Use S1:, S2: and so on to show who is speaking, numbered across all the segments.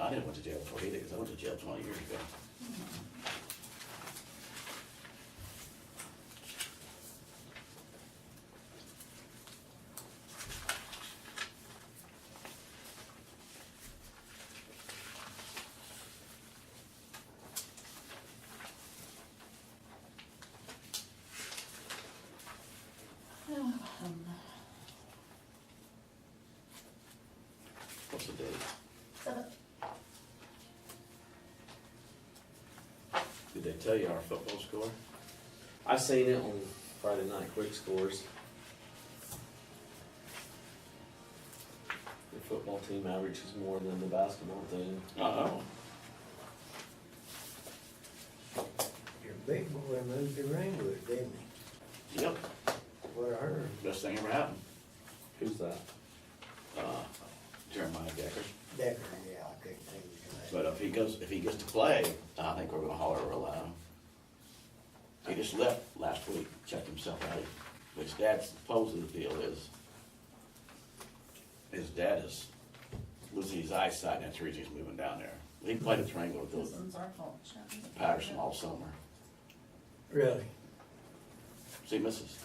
S1: I didn't went to jail for it either, because I went to jail twenty years ago. What's the date? Did they tell you our football score?
S2: I seen it on Friday night quick scores. The football team averages more than the basketball team.
S1: Uh-oh.
S3: Your big boy moved to Ringwood, didn't he?
S1: Yep,
S3: What I heard.
S1: best thing ever happened.
S2: Who's that?
S1: Uh, Jeremiah Decker.
S3: Decker, yeah, I couldn't think of his name.
S1: But if he goes, if he gets to play, I think we're gonna holler real loud. He just left last week, checked himself out, which dad's supposedly the deal is. His dad is losing his eyesight, and that's the reason he's moving down there. He played at Triangle with
S4: This
S1: the
S4: one's our fault. Chapman's.
S1: Patterson all summer.
S3: Really?
S1: See, Mrs.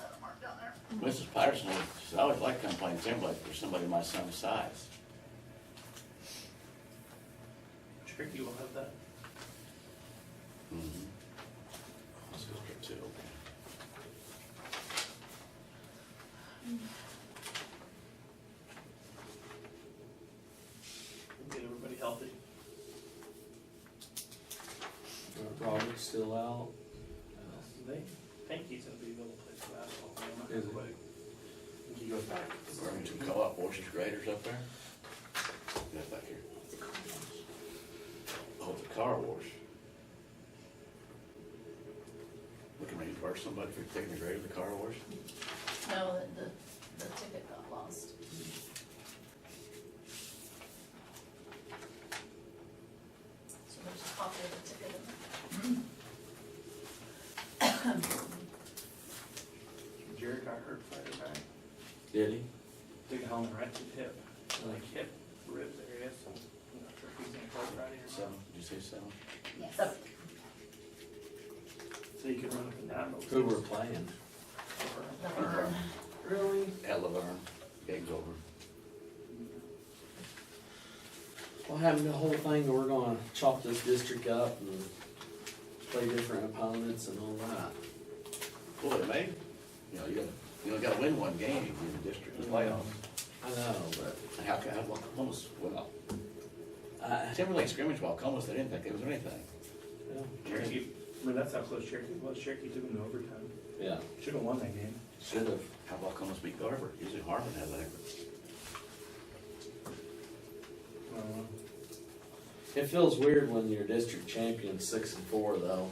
S1: Mrs. Patterson, she said, I always like coming playing Timberlake for somebody my son's size.
S5: Cherokee will have that.
S1: Mhm. Let's go get two, okay.
S5: We'll Get everybody healthy.
S2: Robert's Uh, still out.
S5: They think he's gonna be able to play for basketball. I'm not
S2: Is he?
S5: sure. I think He goes back.
S1: We're two co-op horses graders up there. Yeah, back here. Oh, the car wash. We can reimburse somebody for taking the grader to the car wash.
S4: No, the, the- the ticket got lost. So there's a copy of the ticket in there.
S5: Jerry got hurt Friday night.
S2: Did he?
S5: Took a helmet right to the hip, like hip rib area, so I'm not sure if he's gonna play Friday or
S1: Seven,
S5: not.
S1: did you say seven?
S4: So,
S5: So you can run up and down. those
S2: Who we're
S5: things.
S2: playing?
S4: the burn.
S3: Really?
S1: At Laverne, game's over.
S2: Well, having the whole thing, that we're gonna chop this district up and play different opponents and all that.
S1: Boy, mate, you know, you gotta, you know, gotta win one game if you're in the district playoffs.
S2: I know, but
S1: And How can, how, Wacomas, well,
S2: I,
S1: Timberlake scrimmage Wacomas, they didn't think it was anything.
S5: Cherokee, I mean, that's how close Cherokee was. Cherokee took him to overtime.
S2: yeah,
S5: Should've won that game.
S2: should have.
S1: How Wacomas beat Garber? Usually Harmon has that.
S5: Uh,
S2: It feels weird when your district champion's six and four though.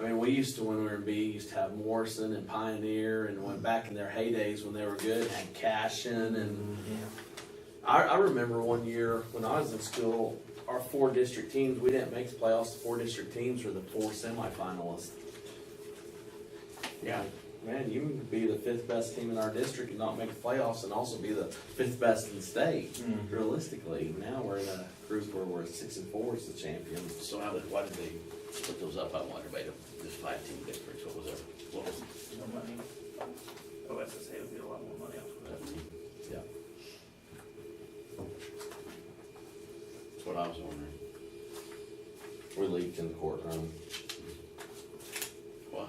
S2: I mean, we used to, when we were in B, used to have Morrison and Pioneer and went back in their heydays when they were good, had Cashin and
S3: Yeah.
S2: I, I remember one year when I was in school, our four district teams, we didn't make the playoffs, the four district teams were the four semifinalists.
S1: Yeah.
S2: Man, you can be the fifth best team in our district and not make the playoffs and also be the fifth best in the state.
S5: Mm.
S2: Realistically, now we're in a group where we're six and four as the champions.
S1: So how did, why did they put those up, I wonder, made them this five team difference, what was that, what was
S5: No money. OSSA would be a lot more money off of
S1: that?
S5: that.
S2: Yeah.
S1: That's what I was wondering,
S2: We're leaked in the courtroom.
S1: what,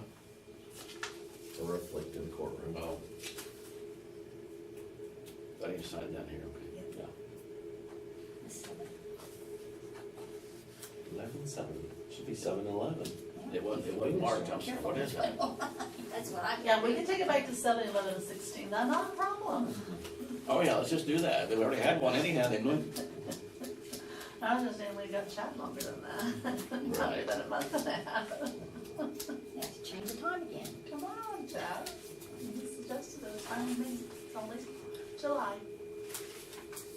S2: The roof leaked in the courtroom.
S1: well. I need to sign down here, okay,
S2: Yeah. Eleven seven. Should be seven eleven.
S1: it wasn't, it wasn't marked, I'm sorry, what is that?
S6: That's what I.
S4: Yeah, we can take it back to seven, eleven, and sixteen, that's not a problem.
S1: Oh yeah, let's just do that, they already had one anyhow, they moved,
S4: I was just saying, we got chat longer than that. Probably
S1: Right.
S4: about a month and a half.
S6: You have to change the time again.
S4: Come on, Chad. You suggested it was time, it's only July.